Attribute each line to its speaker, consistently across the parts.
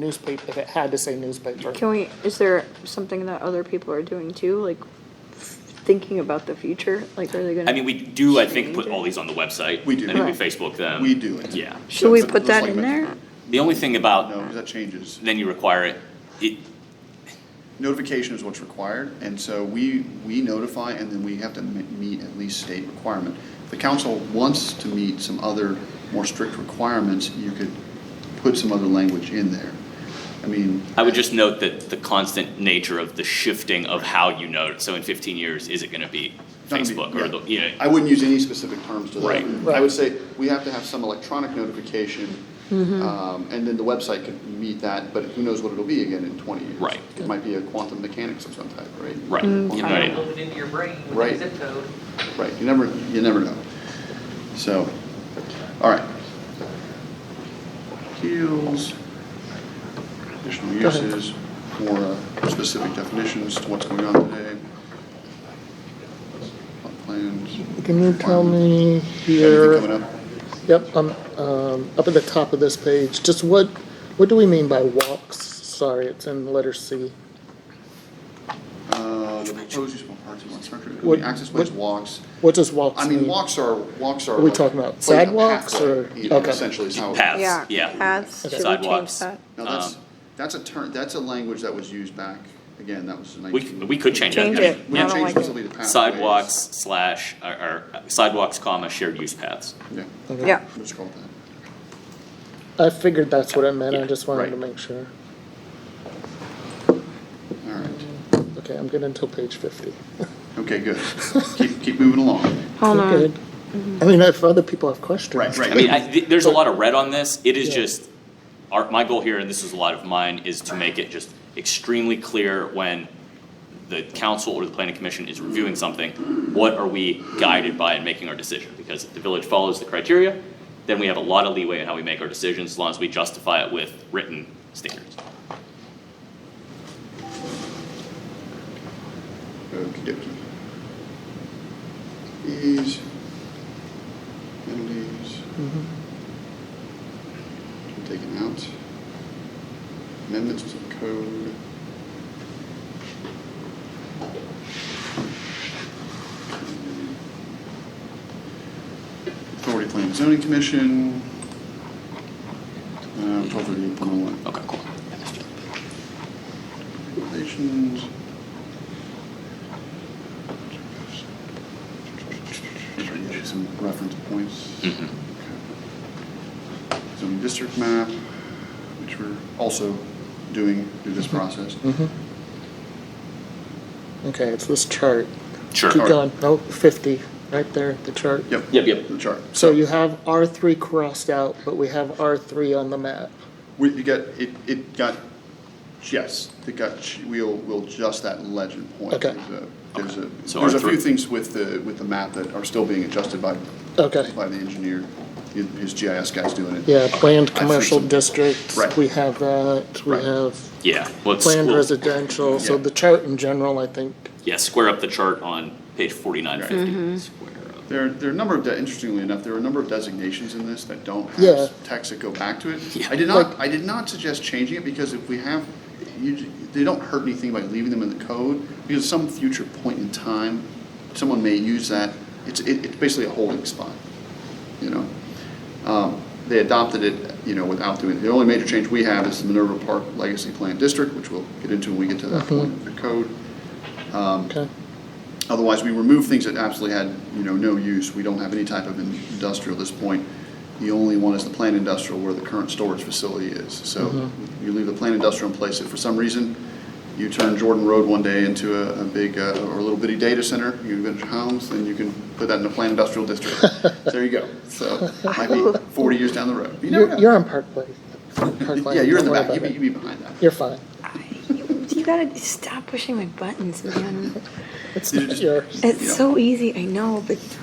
Speaker 1: newspaper, if it had to say newspaper.
Speaker 2: Can we, is there something that other people are doing too, like thinking about the future? Like, are they gonna?
Speaker 3: I mean, we do, I think, put all these on the website.
Speaker 4: We do.
Speaker 3: I mean, we
Speaker 2: Right.
Speaker 3: Facebook them.
Speaker 4: We do.
Speaker 3: Yeah.
Speaker 2: Should we
Speaker 4: That's-
Speaker 2: put
Speaker 4: that's
Speaker 2: that in
Speaker 4: like-
Speaker 2: there?
Speaker 3: The only thing
Speaker 4: No,
Speaker 3: about,
Speaker 4: 'cause that changes.
Speaker 3: then you require it, it,
Speaker 4: Notification is what's required, and so we, we notify, and then we have to me- meet at least state requirement. If the council wants to meet some other more strict requirements, you could put some other language in there. I mean.
Speaker 3: I would just note that the constant nature of the shifting of how you know, so in fifteen years, is it gonna be
Speaker 4: Not gonna be-
Speaker 3: Facebook or the,
Speaker 4: yeah.
Speaker 3: you know?
Speaker 4: I wouldn't use any specific terms to that.
Speaker 3: Right.
Speaker 4: I would say we have to have some electronic notification, um, and then the website could meet that, but who knows what it'll be again in twenty years.
Speaker 3: Right.
Speaker 4: It might be a quantum mechanics of some type, right?
Speaker 3: Right, you know,
Speaker 2: fine.
Speaker 3: right.
Speaker 5: Loaded into your brain with
Speaker 4: Right.
Speaker 5: a zip code.
Speaker 4: Right, you never, you never know. So, all right. Appeals, additional
Speaker 1: Go ahead.
Speaker 4: uses, more uh, specific definitions to what's going on today. Plot Plans.
Speaker 1: Can you tell me
Speaker 4: Anything
Speaker 1: here,
Speaker 4: coming up?
Speaker 1: yep, um, um, up at the top of this page, just what, what do we mean by walks? Sorry, it's in letter C.
Speaker 4: Uh, the proposed use of all parts of one structure, could be
Speaker 1: What-
Speaker 4: access ways,
Speaker 1: what-
Speaker 4: walks.
Speaker 1: What does walks
Speaker 4: I
Speaker 1: mean?
Speaker 4: mean, walks are, walks are.
Speaker 1: Are we talking about
Speaker 4: like a
Speaker 1: sidewalks
Speaker 4: pathway,
Speaker 1: or-
Speaker 4: you know,
Speaker 1: okay.
Speaker 4: Essentially is how. it-
Speaker 3: Paths,
Speaker 2: Yeah.
Speaker 3: yeah.
Speaker 2: Paths, should we change
Speaker 3: Sidewalks.
Speaker 2: that?
Speaker 4: Now, that's,
Speaker 3: Um,
Speaker 4: that's a term, that's a language that was used back, again, that was the
Speaker 3: We,
Speaker 4: nineteen.
Speaker 3: c- we could change that.
Speaker 2: Change
Speaker 3: I mean,
Speaker 2: it.
Speaker 4: We
Speaker 2: I
Speaker 3: yeah.
Speaker 4: can
Speaker 2: don't
Speaker 4: change
Speaker 2: like
Speaker 4: easily to pathways.
Speaker 3: Sidewalks slash, or, or sidewalks comma shared use paths.
Speaker 4: Yeah,
Speaker 1: Okay.
Speaker 2: Yeah,
Speaker 4: let's call it that.
Speaker 1: I figured that's what it meant, I just wanted
Speaker 4: Right.
Speaker 1: to make sure.
Speaker 4: All right,
Speaker 1: Okay, I'm getting until page fifty.
Speaker 4: okay, good. Keep, keep moving along.
Speaker 2: hold
Speaker 1: We're
Speaker 2: on. Mm-hmm.
Speaker 1: good. I mean, if other people have questions.
Speaker 3: I mean, I, th- there's a lot of red on this. It is
Speaker 1: Yeah.
Speaker 3: just, our, my goal here, and this is a lot of mine, is to make it just extremely clear when the council or the planning commission is reviewing something, what are we guided by in making our decision? Because if the village follows the criteria, then we have a lot of leeway in how we make our decisions, as long as we justify it with written standards.
Speaker 4: Okey dokey. Fees, penalties. Taken out. Amendments to the code. Authority Planning and Zoning Commission. Um, twelve thirty eight point one.
Speaker 3: Okay, cool.
Speaker 4: Relations. Some reference points.
Speaker 3: Mhm.
Speaker 4: Zoning district map, which we're also doing through this process.
Speaker 1: Mhm. Okay, it's this chart.
Speaker 3: Sure.
Speaker 1: Keep going, oh, fifty, right there, the chart.
Speaker 4: Yep.
Speaker 3: Yep, yep.
Speaker 4: The chart.
Speaker 1: So you have R three crossed out, but we have R three on the map.
Speaker 4: We, you got, it, it got, yes, it got, ch- we'll, we'll adjust that legend point.
Speaker 1: Okay.
Speaker 4: There's a, there's a,
Speaker 3: So
Speaker 4: there's a
Speaker 3: our three-
Speaker 4: few things with the, with the map that are still being adjusted by,
Speaker 1: Okay.
Speaker 4: by the engineer. His his GIS guy's doing it.
Speaker 1: Yeah, planned
Speaker 4: I've seen
Speaker 1: commercial
Speaker 4: some-
Speaker 1: districts,
Speaker 4: Right.
Speaker 1: we have that, we
Speaker 4: Right.
Speaker 1: have
Speaker 3: Yeah, let's,
Speaker 1: planned
Speaker 3: we'll,
Speaker 1: residential, so
Speaker 4: Yeah.
Speaker 1: the chart in general, I think,
Speaker 3: yeah, square up the chart on page forty-nine
Speaker 4: Right.
Speaker 3: fifty. Square up.
Speaker 4: There, there are a number of, de- interestingly enough, there are a number of designations in this that don't
Speaker 1: Yeah.
Speaker 4: have text that go back to it.
Speaker 3: Yeah.
Speaker 4: I did not, I did not suggest changing it because if we have, you, j- they don't hurt anything by leaving them in the code. Because some future point in time, someone may use that, it's, it, it's basically a holding spot, you know? Um, They adopted it, you know, without doing, the only major change we have is the Minerva Park Legacy Plan District, which we'll get into when we get to that point of the code.
Speaker 1: okay,
Speaker 4: Otherwise, we remove things that absolutely had, you know, no use. We don't have any type of in- industrial at this point. The only one is the plant industrial where the current storage facility is. So
Speaker 1: Mm-hmm.
Speaker 4: you leave the plant industrial in place. If for some reason you turn Jordan Road one day into a, a big, uh, or a little bitty data center, you invent homes, then you can put that in the plant industrial district. There you go. So might be forty years down the road. You never
Speaker 1: you're,
Speaker 4: know.
Speaker 1: you're on Park Place. Park Lane,
Speaker 4: Yeah, you're in
Speaker 1: don't
Speaker 4: the
Speaker 1: worry
Speaker 4: back.
Speaker 1: about
Speaker 4: You'd be,
Speaker 1: it.
Speaker 4: you'd be behind that.
Speaker 1: You're fine,
Speaker 2: You gotta stop pushing my buttons, man.
Speaker 1: it's
Speaker 4: You're
Speaker 1: not
Speaker 4: just-
Speaker 1: yours,
Speaker 4: Yeah.
Speaker 2: It's so easy, I know, but,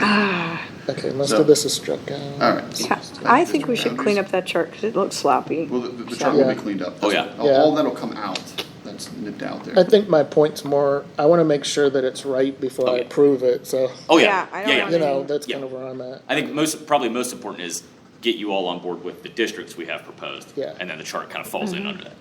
Speaker 2: ah.
Speaker 1: okay, most
Speaker 4: So-
Speaker 1: of this is struck out.
Speaker 4: All right.
Speaker 2: Yeah, I think we should clean up that chart, cause it looks sloppy.
Speaker 4: Well, the, the chart will
Speaker 1: Yeah.
Speaker 4: be cleaned up.
Speaker 3: Oh, yeah.
Speaker 4: All- All
Speaker 1: Yeah.
Speaker 4: that'll come out. That's nipped out there.
Speaker 1: I think my point's more, I wanna make sure that it's right before I
Speaker 3: Okay.
Speaker 1: approve it, so,
Speaker 3: Oh, yeah,
Speaker 2: Yeah, I
Speaker 3: yeah,
Speaker 2: don't
Speaker 3: yeah.
Speaker 2: know.
Speaker 1: you know, that's
Speaker 3: Yeah.
Speaker 1: kinda where I'm at.
Speaker 3: I think most, probably most important is get you all on board with the districts we have proposed.
Speaker 1: Yeah.
Speaker 3: And then the chart kind of falls in under that.